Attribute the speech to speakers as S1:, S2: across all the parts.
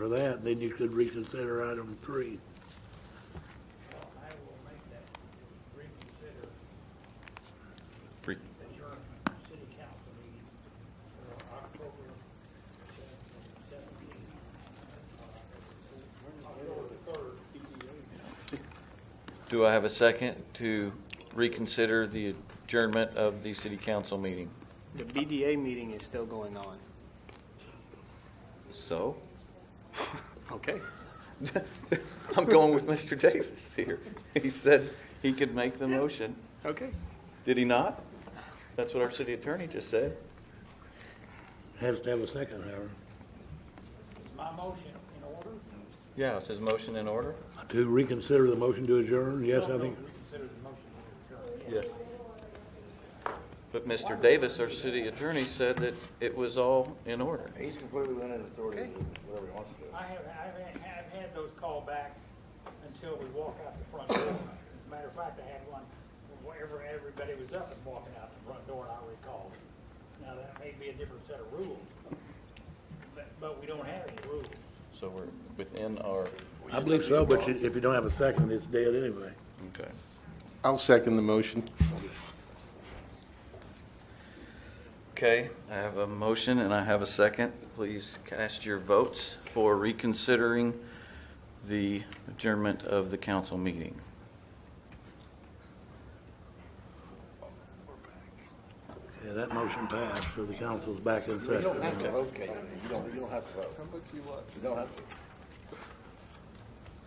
S1: for that, then you could reconsider item three.
S2: I will make that reconsider
S3: Re-
S2: adjourn city council meeting for October seventeenth. October the third,
S3: Do I have a second to reconsider the adjournment of the city council meeting?
S4: The BDA meeting is still going on.
S3: So,
S4: Okay.
S3: I'm going with Mr. Davis here. He said he could make the motion.
S4: Okay.
S3: Did he not? That's what our city attorney just said.
S1: Has to have a second, however,
S2: Is my motion in order?
S3: Yeah, is his motion in order?
S1: to reconsider the motion to adjourn, yes, I think.
S2: Reconsider the motion to
S3: Yes.
S2: adjourn.
S3: But Mr. Davis, our city attorney, said that it was all in order.
S5: He's completely within his authority to do whatever he wants to do.
S2: I have, I've had, I've had those called back until we walk out the front door. As a matter of fact, I had one wherever everybody was up and walking out the front door, and I recalled. Now, that may be a different set of rules, but, but we don't have any rules.
S3: So we're within our,
S1: I believe so, but you- if you don't have a second, it's dead anyway.
S3: okay.
S6: I'll second the motion.
S3: Okay, I have a motion and I have a second. Please cast your votes for reconsidering the adjournment of the council meeting.
S1: Yeah, that motion passed, so the council's back in
S5: You don't have
S1: session.
S5: to vote, Kate. You don't, you don't have to vote. How much you want? You don't have to.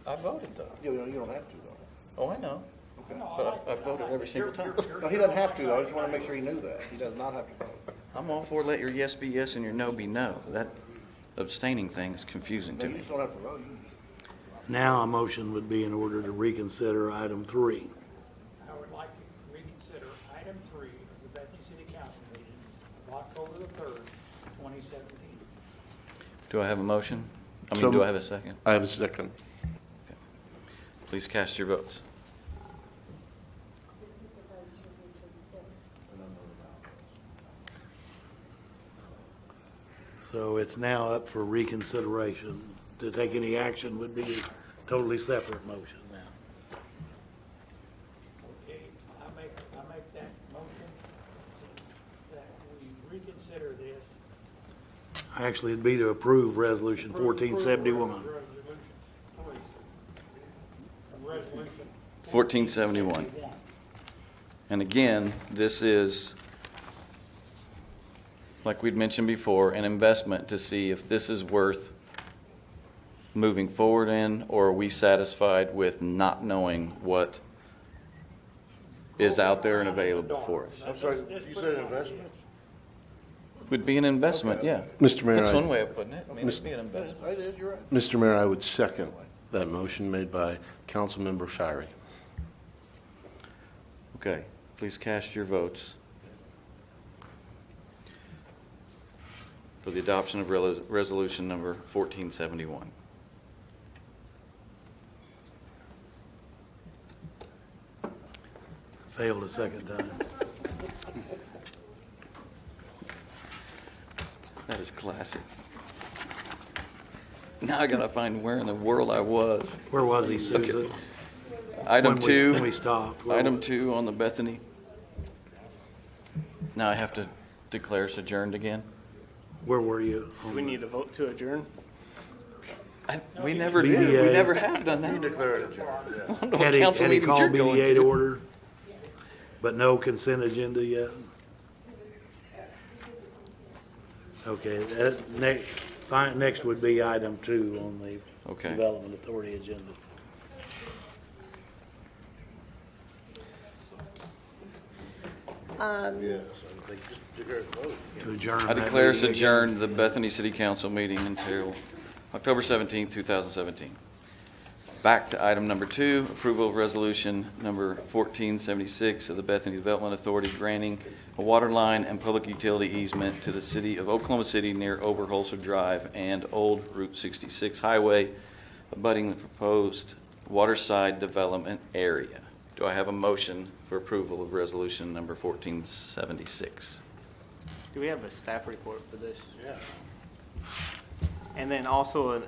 S3: I voted though.
S5: You don't, you don't have to, though.
S3: Oh, I know.
S2: No, I
S3: But I-
S2: like-
S3: I voted every single time.
S5: No, he doesn't have to, though. I just want to make sure he knew that. He does not have to vote.
S3: I'm all for let your yes be yes and your no be no. That abstaining thing is confusing
S5: No,
S3: to
S5: you
S3: me.
S5: just don't have to vote. You just-
S1: Now a motion would be in order to reconsider item three.
S2: I would like to reconsider item three of the Bethany City Council meeting of October the third, twenty seventeen.
S3: Do I have a motion? I mean,
S6: So-
S3: do I have a second?
S6: I have a second.
S3: Please cast your votes.
S1: So it's now up for reconsideration. To take any action would be a totally separate motion now.
S2: Okay, I make, I make that motion that we reconsider this.
S1: Actually, it'd be to approve Resolution fourteen seventy-one.
S2: Resolution
S3: 1471.
S2: one.
S3: And again, this is, like we'd mentioned before, an investment to see if this is worth moving forward in, or are we satisfied with not knowing what is out there and available for us?
S5: I'm sorry, you said an investment?
S3: Would be an investment, yeah.
S6: Mr. Mayor,
S3: That's one
S6: I-
S3: way of putting it. I mean, it'd be an investment.
S5: I did, you're right.
S6: Mr. Mayor, I would second that motion made by Councilmember Shirey.
S3: Okay, please cast your votes for the adoption of relo- resolution number 1471.
S1: Failed a second time.
S3: That is classic. Now I gotta find where in the world I was.
S1: Where was he, Susan?
S3: Item
S1: When we- When we
S3: two,
S1: stopped. Where
S3: item two on the Bethany. Now I have to declare us adjourned again?
S1: Where were you?
S4: We need a vote to adjourn?
S3: I- We never did, we
S1: BDA.
S3: never have done that.
S5: Declare it adjourned, yeah.
S3: I don't know what
S1: Had he,
S3: council
S1: had he
S3: meetings Oh, you're
S1: called
S3: going
S1: BDA to
S3: to.
S1: order? But no consent agenda yet? Okay, that, next, fine, next would be item two on the
S3: Okay.
S1: Development Authority agenda.
S5: Yeah, so they just declare it vote.
S1: To adjourn
S3: I
S1: that
S3: declare us
S1: meeting again.
S3: adjourned the Bethany City Council meeting until October 17, 2017. Back to item number two, approval of resolution number 1476 of the Bethany Development Authority granting a water line and public utility easement to the city of Oklahoma City near Oberholzer Drive and Old Route 66 Highway abutting the proposed waterside development area. Do I have a motion for approval of resolution number 1476?
S4: Do we have a staff report for this?
S5: Yeah.
S4: And then also an